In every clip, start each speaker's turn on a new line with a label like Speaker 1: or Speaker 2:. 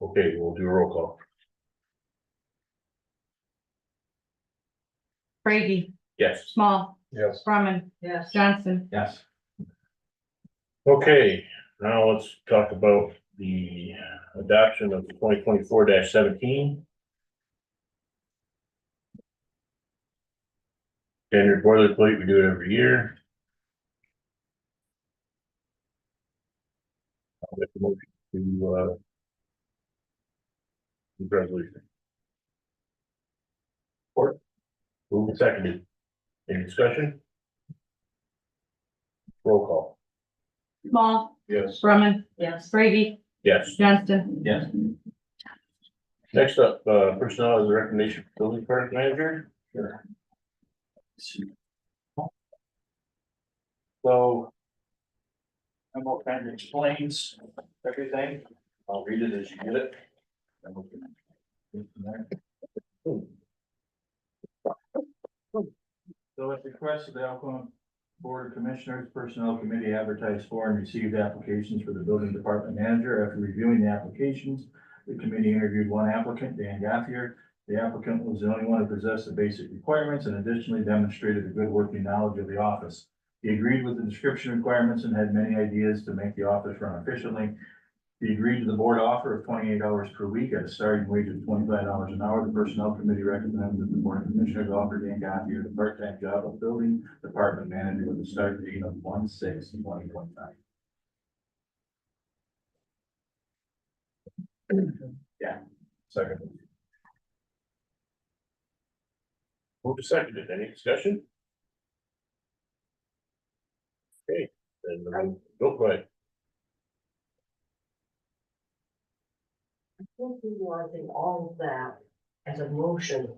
Speaker 1: Okay, we'll do a roll call.
Speaker 2: Brady,
Speaker 1: Yes.
Speaker 2: Small,
Speaker 1: Yes.
Speaker 2: Brumman,
Speaker 3: Yes.
Speaker 2: Johnson,
Speaker 4: Yes.
Speaker 1: Okay, now let's talk about the adoption of twenty twenty-four seventeen. Standard boilerplate, we do it every year. I'll make the motion to, uh, the resolution. Or, move and seconded. Any discussion? Roll call.
Speaker 2: Small,
Speaker 1: Yes.
Speaker 2: Brumman,
Speaker 3: Yes.
Speaker 2: Brady,
Speaker 1: Yes.
Speaker 2: Johnston,
Speaker 4: Yes.
Speaker 1: Next up, uh, personnel is a recommendation for building product manager.
Speaker 4: So. Humboldt kind of explains everything. I'll read it as you get it. And we can go from there. So at the request of the Alcoa Board of Commissioners Personnel Committee advertised for and received applications for the building department manager. After reviewing the applications, the committee interviewed one applicant, Dan Gaffier. The applicant was the only one who possessed the basic requirements and additionally demonstrated a good working knowledge of the office. He agreed with the description requirements and had many ideas to make the office run efficiently. He agreed to the board offer of twenty-eight dollars per week at a starting wage of twenty-five dollars an hour. The personnel committee recommended that the board of commissioners offer Dan Gothier the part-time job of building department manager with a start date of one six twenty twenty-nine. Yeah. Second.
Speaker 1: Who seconded? Any discussion? Okay, then um, go for it.
Speaker 3: I think utilizing all of that as a motion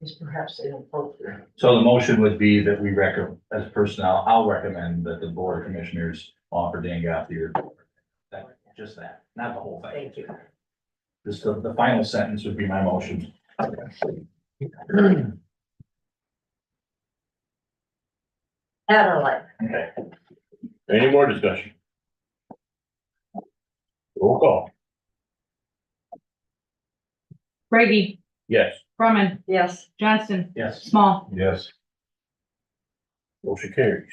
Speaker 3: is perhaps inappropriate.
Speaker 4: So the motion would be that we recommend, as personnel, I'll recommend that the board of commissioners offer Dan Gothier. That- Just that, not the whole thing.
Speaker 3: Thank you.
Speaker 4: Just the, the final sentence would be my motion.
Speaker 3: That I like.
Speaker 4: Okay,
Speaker 1: Any more discussion? Roll call.
Speaker 2: Brady,
Speaker 1: Yes.
Speaker 2: Brumman,
Speaker 3: Yes.
Speaker 2: Johnson,
Speaker 4: yes.
Speaker 2: Small,
Speaker 1: Yes. Motion carries.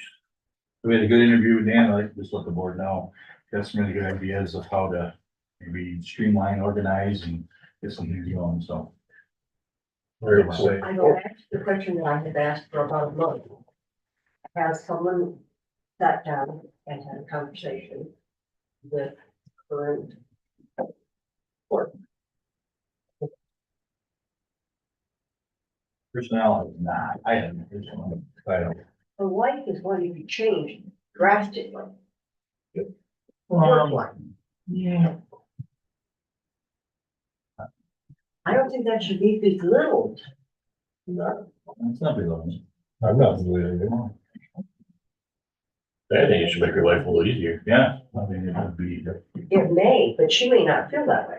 Speaker 4: We had a good interview with Dan, I just let the board know, got some really good ideas of how to maybe streamline, organize and get some things going, so.
Speaker 1: Very well.
Speaker 3: I go back to the question that I had asked for about a month. Has someone sat down and had a conversation with current court?
Speaker 4: Personnel is not, I haven't, here's one. I don't.
Speaker 3: The life is going to be changed drastically. Work
Speaker 4: Um,
Speaker 3: life.
Speaker 4: Yeah.
Speaker 3: I don't think that should be belittled.
Speaker 4: It's not belonging.
Speaker 1: I'm not really. I think it should make your life a little easier.
Speaker 4: Yeah, I mean, it would be,
Speaker 3: It may, but she may not feel that way.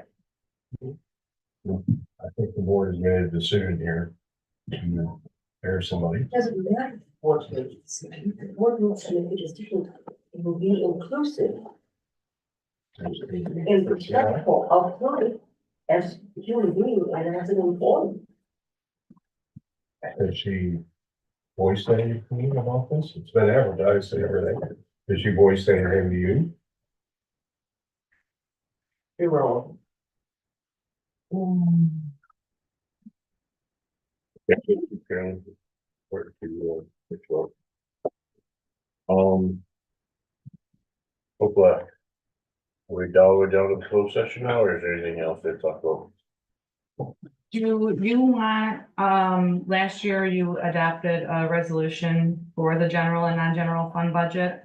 Speaker 1: I think the board has made a decision here to hire somebody.
Speaker 3: Doesn't matter what it is. The ordinance and if it is different, it will be inclusive and respectful of life as a human being and as an employee.
Speaker 1: Has she voiced anything about this? It's been advertised and everything. Has she voiced anything to you?
Speaker 3: You're wrong. Mm.
Speaker 1: Um. Hopefully. We're down, we're down to closed session now, or is there anything else to talk about?
Speaker 2: do you want, um, last year you adopted a resolution for the general and non-general fund budget.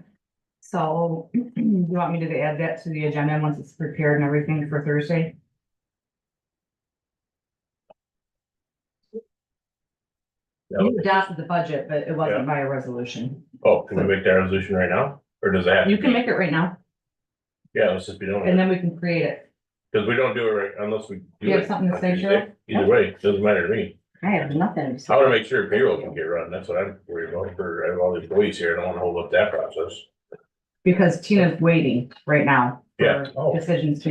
Speaker 2: So you want me to add that to the agenda once it's prepared and everything for Thursday? You adopted the budget, but it wasn't by a resolution.
Speaker 1: Oh, can we make that resolution right now? Or does it have? to
Speaker 2: You can
Speaker 1: be-
Speaker 2: make it right now
Speaker 1: Yeah, let's just be doing
Speaker 2: and
Speaker 1: it,
Speaker 2: then we can create it.
Speaker 1: because we don't do it right unless we. do
Speaker 2: You have
Speaker 1: it.
Speaker 2: something to say, Joe?
Speaker 1: Either way, it doesn't matter to me.
Speaker 2: I have nothing.
Speaker 1: I wanna make sure payroll can get run, that's what I'm worried about for I have all the employees here, I don't wanna hold up that process.
Speaker 2: Because Tina's waiting right now.
Speaker 1: Yeah.
Speaker 2: for Decisions to